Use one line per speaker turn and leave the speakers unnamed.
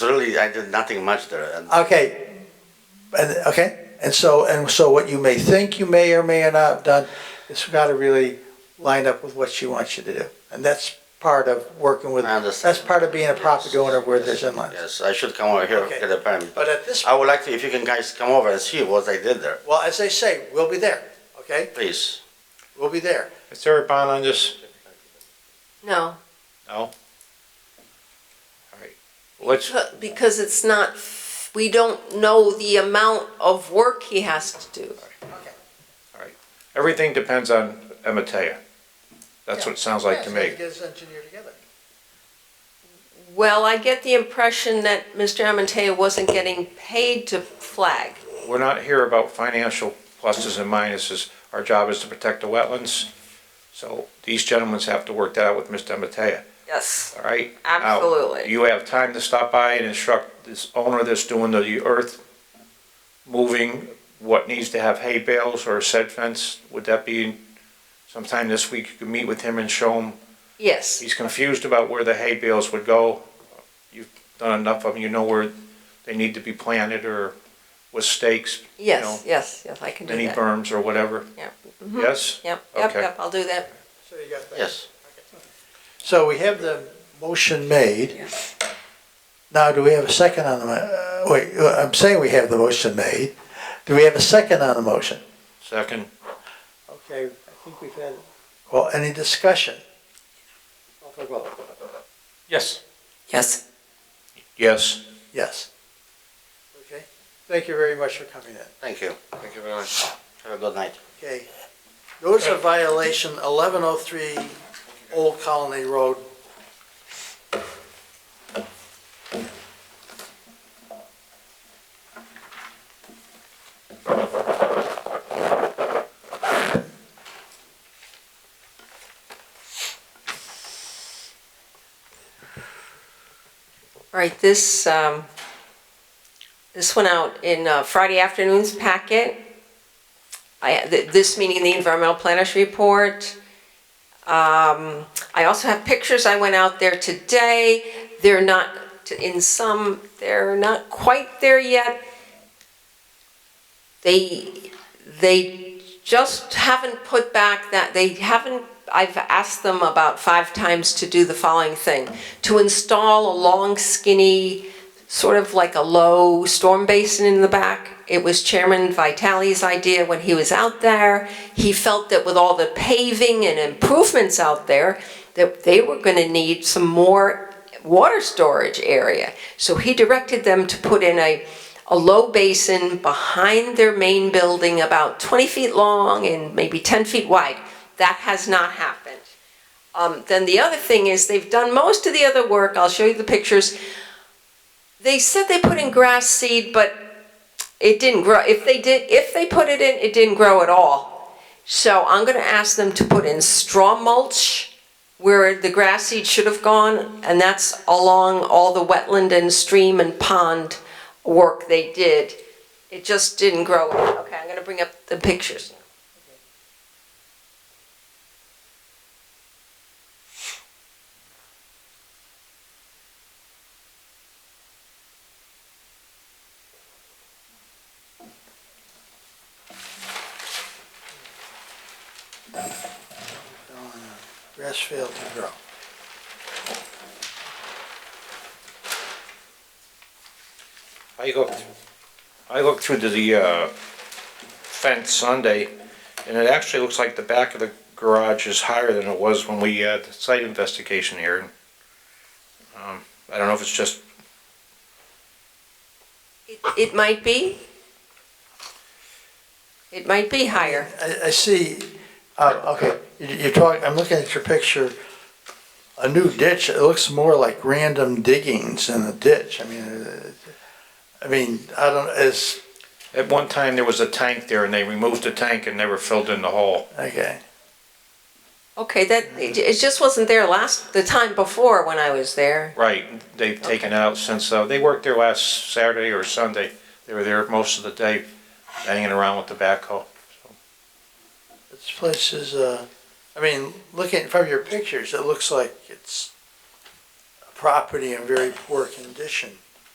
really, I did nothing much there. And
Okay, and, okay, and so, and so what you may think you may or may not have done, it's gotta really line up with what she wants you to do. And that's part of working with,
I understand.
that's part of being a property owner where there's inland.
Yes, I should come over here,
Okay.
get a permit.
But at this,
I would like to, if you can guys come over and see what I did there,
well, as they say, we'll be there, okay?
please.
We'll be there.
Is there a bond on this?
No,
Let's,
because it's not, we don't know the amount of work he has to do.
everything depends on Ematea. That's what it sounds like to
Yeah, so
me.
Get his engineer together.
Well, I get the impression that Mr. Amantea wasn't getting paid to flag.
We're not here about financial pluses and minuses. Our job is to protect the wetlands. So these gentlemen have to work that out with Mr. Ematea,
Yes,
all right? Now,
absolutely.
You have time to stop by and instruct this owner that's doing the earth moving, what needs to have hay bales or a said fence. Would that be sometime this week? You could meet with him and show him
Yes,
He's confused about where the hay bales would go. You've done enough of them, you know where they need to be planted or with stakes,
yes, yes, yes, I can do
mini
that.
berms or whatever.
Yep. Mhm.
Yes?
Yep, yep,
Okay.
yep, I'll do that.
So you got that.
Yes,
So we have the motion made. Now, do we have a second on the, mo- uh, wait, uh, I'm saying we have the motion made. Do we have a second on the motion?
Second,
Okay, I think we've had. Well, any discussion?
Yes.
Yes.
yes.
Yes. Okay, thank you very much for coming in.
thank you.
Thank you very much.
Have a good night.
Okay, notice of violation eleven oh three Old Colony Road.
Right, this, um, this went out in uh, Friday afternoon's packet. I, th- this meeting, the environmental planners report. Um, I also have pictures, I went out there today, they're not, in some, they're not quite there yet. They, they just haven't put back that, they haven't, I've asked them about five times to do the following thing to install a long skinny, sort of like a low storm basin in the back. It was Chairman Vitale's idea when he was out there. He felt that with all the paving and improvements out there, that they were gonna need some more water storage area. So he directed them to put in a, a low basin behind their main building about 20 feet long and maybe 10 feet wide. That has not happened. Um, then the other thing is they've done most of the other work. I'll show you the pictures. They said they put in grass seed, but it didn't grow. If they did, if they put it in, it didn't grow at all. So I'm going to ask them to put in straw mulch where the grass seed should have gone, and that's along all the wetland and stream and pond work they did. It just didn't grow. Okay, I'm going to bring up the pictures.
Grass failed to grow.
I looked, I looked through to the uh, fence Sunday, and it actually looks like the back of the garage is higher than it was when we had the site investigation here. Um, I don't know if it's just,
It, it might be. It might be higher.
I, I see, uh, okay, you- you're talking, I'm looking at your picture, a new ditch, it looks more like random diggings in a ditch, I mean, uh, I mean, I don't, it's,
at one time, there was a tank there, and they removed the tank and never filled in the hole.
okay.
Okay, that, it it just wasn't there last, the time before when I was there.
Right, they've taken out since, uh, they worked there last Saturday or Sunday. They were there most of the day, hanging around with the backhoe.
This place is, uh, I mean, looking from your pictures, it looks like it's a property in very poor condition.